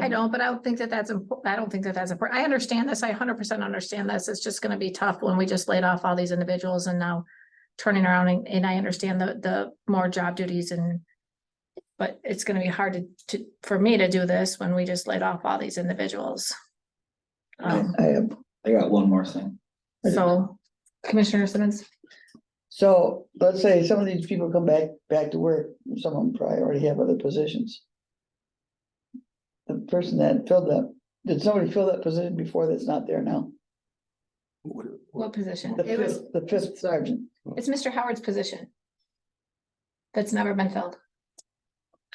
I know, but I don't think that that's, impo- I don't think that that's important. I understand this. I hundred percent understand this. It's just gonna be tough when we just laid off all these individuals and now turning around and, and I understand the, the more job duties and but it's gonna be hard to, to, for me to do this when we just laid off all these individuals. I Um, I have, I got one more thing. so Commissioner Simmons, so let's say some of these people come back, back to work, some of them probably already have other positions. The person that filled that, did somebody fill that position before that's not there now? what position? The It was, fifth, the fifth sergeant, it's Mr. Howard's position. That's never been filled.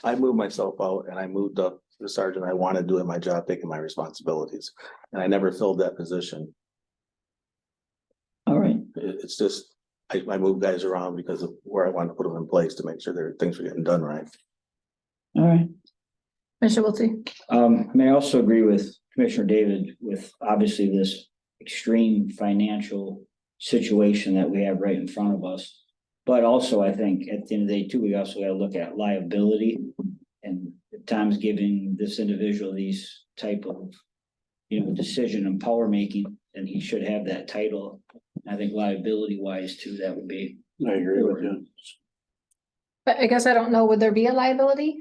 I moved myself out and I moved up to the sergeant. I wanted doing my job, taking my responsibilities. And I never filled that position. all right, It- it's just, I, I moved guys around because of where I wanted to put them in place to make sure their things were getting done right. all right, Commissioner Wiltie, Um, I may also agree with Commissioner David with obviously this extreme financial situation that we have right in front of us. But also, I think at the end of the day too, we also gotta look at liability and if Tom's giving this individual these type of you know, decision and power making, then he should have that title. I think liability wise too, that would be. I agree with you. but I guess I don't know, would there be a liability?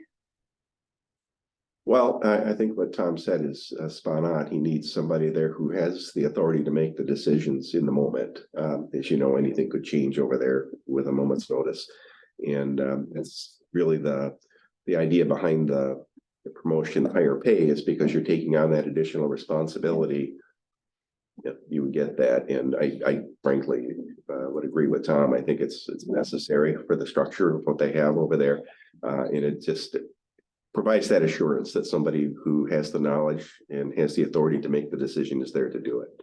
Well, I, I think what Tom said is uh, spot on. He needs somebody there who has the authority to make the decisions in the moment. Um, as you know, anything could change over there with a moment's notice. And, um, that's really the, the idea behind the the promotion, the higher pay is because you're taking on that additional responsibility. Yep, you would get that. And I, I frankly, uh, would agree with Tom. I think it's, it's necessary for the structure of what they have over there. Uh, and it just, provides that assurance that somebody who has the knowledge and has the authority to make the decision is there to do it.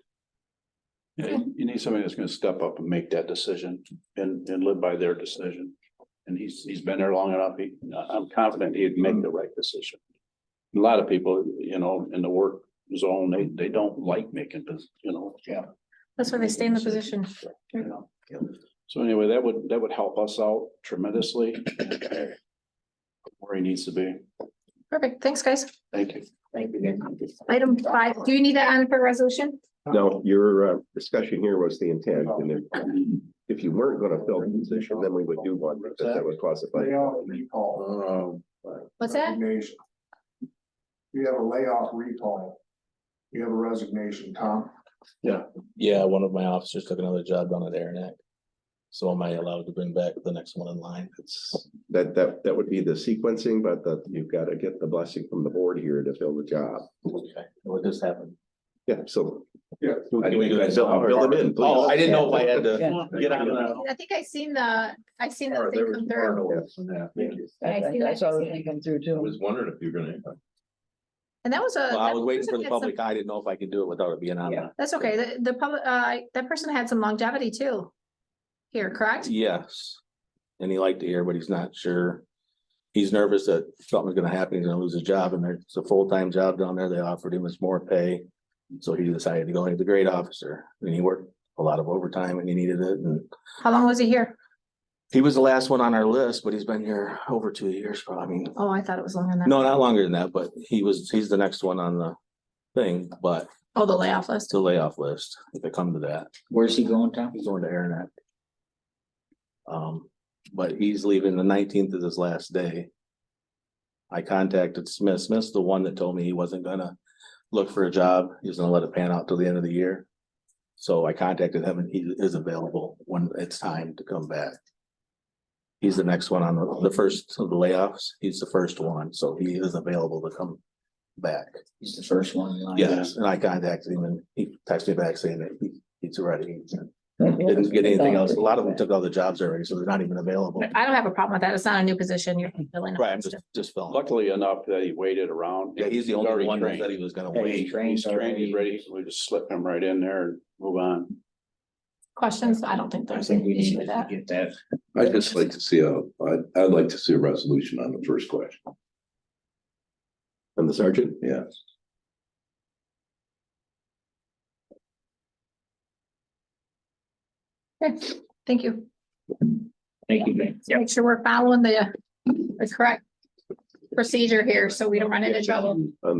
Yeah, You need somebody that's gonna step up and make that decision and, and live by their decision. And he's, he's been there long enough. He, I'm confident he'd make the right decision. A lot of people, you know, in the work zone, they, they don't like making, this, you know. Yeah. That's why they stay in the position. You know. So anyway, that would, that would help us out tremendously. Where he needs to be. Perfect. Thanks, guys. Thank you. Item five, do you need that on for resolution? Now, your uh, discussion here was the intent, and if, if you weren't gonna fill the position, then we would do one, because that would classify. Layoff recall. Um, What's that? Resignation. You have a layoff recall. You have a resignation, Tom. Yeah, one of my officers took another job down at Aranac. So am I allowed to bring back the next one in line? It's, That, that, that would be the sequencing, but that you've gotta get the blessing from the board here to fill the job. Okay, what just happened? Yeah, so. Yeah. I Can we do that? Fill fill them in, please. Oh, I didn't know if I had to yeah. get on that. I think I seen the, I seen the Or thing there was come more through. noise than that. I I, see I- I that, I saw see that. that come through I too. was wondering if you're gonna. And that was a. Well, I that was waiting person for the had some- public. I didn't know if I could do it without it being on that. That's okay. The, the public, uh, that person had some longevity too. Here, correct? Yes. And he liked to hear, but he's not sure. He's nervous that something's gonna happen, he's gonna lose his job, and there's a full-time job down there, they offered him, it's more pay. So he decided to go into the grade officer, and he worked a lot of overtime and he needed it, and How long was he here? he was the last one on our list, but he's been here over two years, probably, I mean, Oh, I thought it was longer than that. no, not longer than that, but he was, he's the next one on the thing, but Oh, the layoff list. still layoff list, if it come to that. Where's he going, Tom? He's going to Aranet. Um, but he's leaving the nineteenth is his last day. I contacted Smith. Smith's the one that told me he wasn't gonna look for a job. He was gonna let it pan out till the end of the year. So I contacted him and he is available when it's time to come back. He's the next one on the, the first of the layoffs. He's the first one, so he is available to come back. He's the first one in line. Yes, and I contacted him and he texted me back saying that he, he's ready. Didn't Didn't get anything else. A lot of them took all the jobs already, so they're not even available. I don't have a problem with that. It's not a new position. You're filling. Right, I'm just, just filling. Luckily enough that he waited around. Yeah, he's the only already one that trained. said he was gonna Yeah, wait. he's trained He's trained, already. he's ready, we just slip him right in there and move on. Questions? I don't think I there's think an we need issue with to that. get that. I'd just like to see a, I'd, I'd like to see a resolution on the first question. And the sergeant? Yes. Okay, Thank you. Thank you, Ben. Make sure we're following the, the correct procedure here so we don't run into trouble. On the